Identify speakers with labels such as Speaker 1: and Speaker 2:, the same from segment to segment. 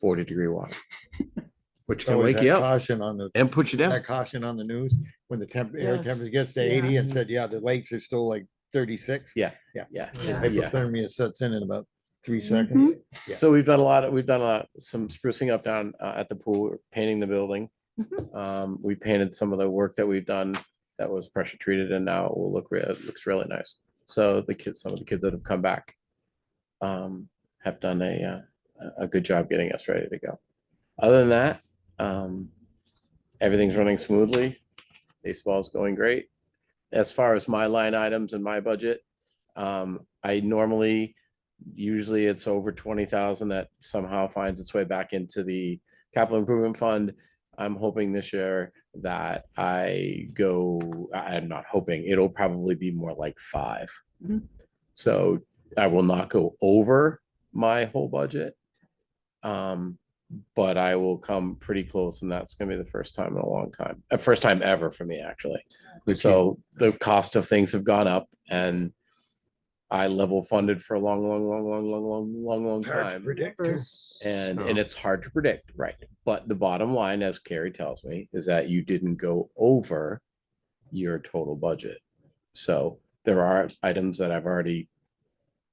Speaker 1: forty degree water. Which
Speaker 2: So
Speaker 1: can
Speaker 2: Oh, is
Speaker 1: wake
Speaker 2: that
Speaker 1: you up
Speaker 2: Caution on the,
Speaker 1: and put you down.
Speaker 2: that caution on the news, when the temp, air
Speaker 3: Yes.
Speaker 2: temperature gets to
Speaker 3: Yeah.
Speaker 2: eighty and said, yeah, the lakes are still like thirty-six.
Speaker 1: Yeah.
Speaker 2: Yeah.
Speaker 1: Yeah.
Speaker 2: The
Speaker 3: Yeah.
Speaker 1: Yeah.
Speaker 2: Hypothermia sets in in about three
Speaker 3: Mhm.
Speaker 2: seconds. Yeah.
Speaker 1: So we've done a lot, of we've done a, lot- some sprucing up down uh, at the pool, painting the building. Um, we painted some of the work that we've done that was pressure treated and now it will look, re- it looks really nice. So the kids, some of the kids that have come back um, have done a, uh, a- a good job getting us ready to go. Other than that, um, everything's running smoothly. Baseball's going great. As far as my line items and my budget, um, I normally usually it's over twenty thousand that somehow finds its way back into the capital improvement fund. I'm hoping this year that I go, I- I'm not hoping, it'll probably be more like five.
Speaker 2: Mm-hmm.
Speaker 3: Mhm.
Speaker 1: So I will not go over my whole budget. Um, but I will come pretty close and that's gonna be the first time in a long time, uh, first time ever for me, actually. So the cost of things have gone up and I level funded for a long, long, long, long, long, long, long, long
Speaker 2: It's hard to
Speaker 1: time.
Speaker 2: predict. too.
Speaker 3: Numbers.
Speaker 1: And, and
Speaker 4: So-
Speaker 1: it's hard to predict, right? But the bottom line, as Carrie tells me, is that you didn't go over your total budget. So there are items that I've already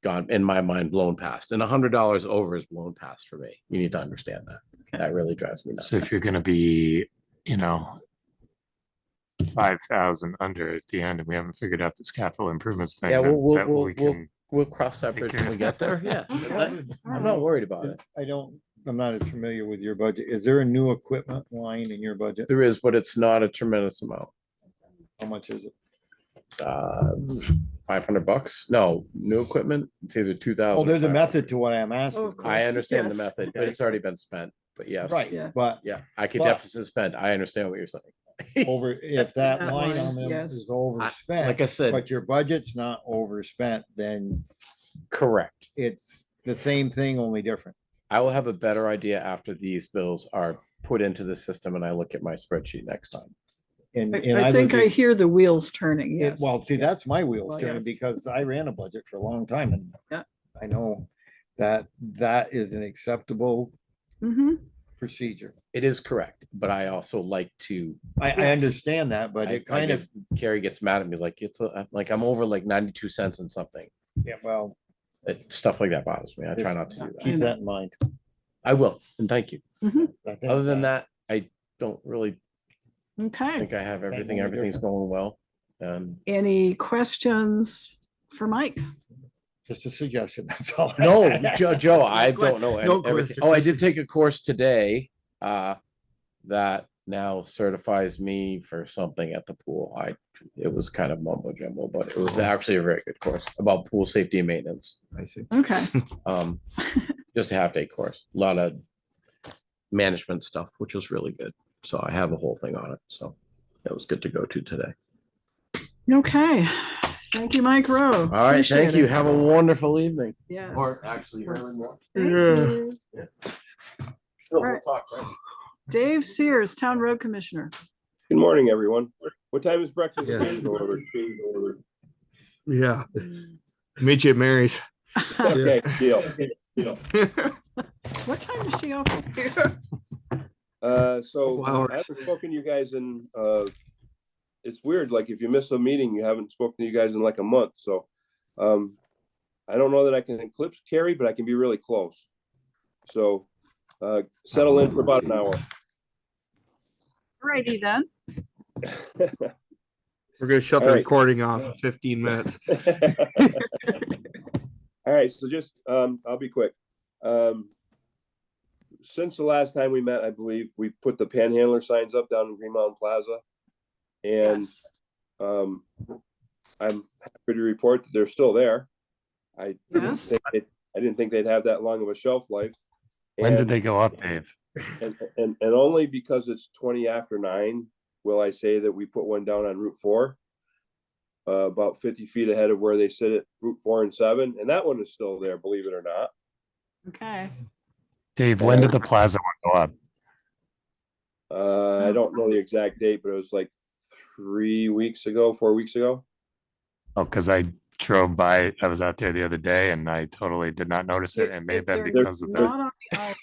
Speaker 1: gone, in my mind, blown past. And a hundred dollars over is blown past for me. You need to understand that.
Speaker 4: Okay.
Speaker 1: That really drives me nuts.
Speaker 4: So if you're gonna be, you know, five thousand under at the end, and we haven't figured out this capital improvements thing,
Speaker 1: Yeah,
Speaker 4: then
Speaker 1: we'll- we'll-
Speaker 4: that
Speaker 1: we'll-
Speaker 4: we
Speaker 1: we'll-
Speaker 4: can.
Speaker 1: We'll cross that bridge when we get there. Yeah. I- I'm not worried about
Speaker 2: Is-
Speaker 1: it.
Speaker 2: Uh, I don't, I'm not as familiar with your budget. Is there a new equipment line in your budget?
Speaker 1: There is, but it's not a tremendous amount.
Speaker 2: How much is it?
Speaker 1: uh, five hundred bucks? No, new equipment, it's either two thousand.
Speaker 2: Oh, there's a method to what I'm asking.
Speaker 3: course.
Speaker 1: I
Speaker 3: Yes,
Speaker 1: understand the
Speaker 3: yes.
Speaker 1: method, but it's already been spent, but yes.
Speaker 2: Right,
Speaker 3: Yeah.
Speaker 2: but
Speaker 1: Yeah, I could
Speaker 2: But-
Speaker 1: deficit spend. I understand what you're saying.
Speaker 2: over, if that
Speaker 3: That
Speaker 2: line
Speaker 3: line,
Speaker 2: on them
Speaker 3: yes.
Speaker 2: is
Speaker 1: Like I
Speaker 2: overspent,
Speaker 1: said,
Speaker 2: but your budget's not overspent, then
Speaker 1: correct.
Speaker 2: it's the same thing, only different.
Speaker 1: I will have a better idea after these bills are put into the system and I look at my spreadsheet next time.
Speaker 2: And,
Speaker 3: I-
Speaker 2: and
Speaker 3: I think
Speaker 2: would
Speaker 3: I
Speaker 2: be-
Speaker 3: hear the wheels turning,
Speaker 2: Yeah,
Speaker 3: yes.
Speaker 2: Well, see, that's my wheels
Speaker 3: Well,
Speaker 2: turning
Speaker 3: yes.
Speaker 2: because I ran a budget for a long time and
Speaker 3: Yeah.
Speaker 2: I know that that is an acceptable
Speaker 3: Mhm.
Speaker 2: procedure.
Speaker 1: It is correct, but I also like to,
Speaker 2: I, I
Speaker 3: Yes.
Speaker 2: understand that, but
Speaker 1: I-
Speaker 2: it
Speaker 1: I
Speaker 2: kind of,
Speaker 1: Carrie gets mad at me like it's, a- I'm like I'm over like ninety-two cents and something.
Speaker 2: yeah, well,
Speaker 1: It- Stuff like that bothers me. I try
Speaker 2: Just
Speaker 1: not to do that.
Speaker 2: keep that in mind.
Speaker 1: I will, and thank you.
Speaker 2: I think
Speaker 1: Other than that, I don't really I
Speaker 3: Okay.
Speaker 1: think I have
Speaker 2: Same
Speaker 1: everything,
Speaker 2: only
Speaker 1: everything's going well. Um,
Speaker 3: Any questions for Mike?
Speaker 2: Just a suggestion, that's all.
Speaker 1: no, Joe, Joe, I
Speaker 2: No que-
Speaker 1: don't know.
Speaker 2: no
Speaker 1: any- everything.
Speaker 2: question,
Speaker 1: Oh, I did
Speaker 2: just
Speaker 1: take a course today, uh, that now certifies me for something at the pool. I, it was kind of mumbo jumbo, but it was actually a very good course about pool safety and maintenance.
Speaker 2: I see.
Speaker 3: Okay,
Speaker 1: Um, just a half day course, a lot of management stuff, which was really good. So I have a whole thing on it. So it was good to go to today.
Speaker 3: okay. Thank you, Mike Rowe.
Speaker 4: Uh,
Speaker 1: All right,
Speaker 3: Appreciate
Speaker 1: thank you.
Speaker 3: it.
Speaker 1: Have a wonderful evening.
Speaker 3: Yes.
Speaker 1: actually
Speaker 3: early Yes.
Speaker 1: morning.
Speaker 3: Thank
Speaker 2: Yeah.
Speaker 3: you.
Speaker 1: Still,
Speaker 3: we'll Alright.
Speaker 1: talk,
Speaker 3: Dave Sears, Town Road Commissioner.
Speaker 5: Good morning, everyone. What time is breakfast?
Speaker 2: Yes.
Speaker 5: Change order.
Speaker 6: Yeah, meet you at Mary's.
Speaker 5: Okay, deal. Deal.
Speaker 3: What time is she open?
Speaker 5: Uh, so
Speaker 6: Couple hours.
Speaker 5: I haven't spoken to you guys in, uh, it's weird, like if you miss a meeting, you haven't spoken to you guys in like a month, so. Um, I don't know that I can eclipse Carrie, but I can be really close. So, uh, settle in for about an hour.
Speaker 3: Alrighty then.
Speaker 6: We're gonna shut the
Speaker 5: All right.
Speaker 6: recording off in fifteen minutes.
Speaker 5: All right, so just, um, I'll be quick. Um, since the last time we met, I believe we put the panhandler signs up down in Green Mountain Plaza. And,
Speaker 3: Yes.
Speaker 5: um, I'm happy to report that they're still there. I didn't
Speaker 3: Yes.
Speaker 5: think, it- I didn't think they'd have that long of a shelf life.
Speaker 4: When did
Speaker 5: And-
Speaker 4: they go up, Dave?
Speaker 5: and, and, and only because it's twenty after nine, will I say that we put one down on Route four. Uh, about fifty feet ahead of where they sit at Route four and seven, and that one is still there, believe it or not.
Speaker 3: Okay.
Speaker 4: Dave, when did
Speaker 5: Uh,
Speaker 4: the plaza one go up?
Speaker 5: Uh, I don't know the exact date, but it was like three weeks ago, four weeks ago.
Speaker 4: Oh, because I drove by, I was out there the other day and I totally did not notice it.
Speaker 3: If-
Speaker 4: and may
Speaker 3: if
Speaker 4: have been
Speaker 3: they're
Speaker 4: because of the,
Speaker 3: Not on the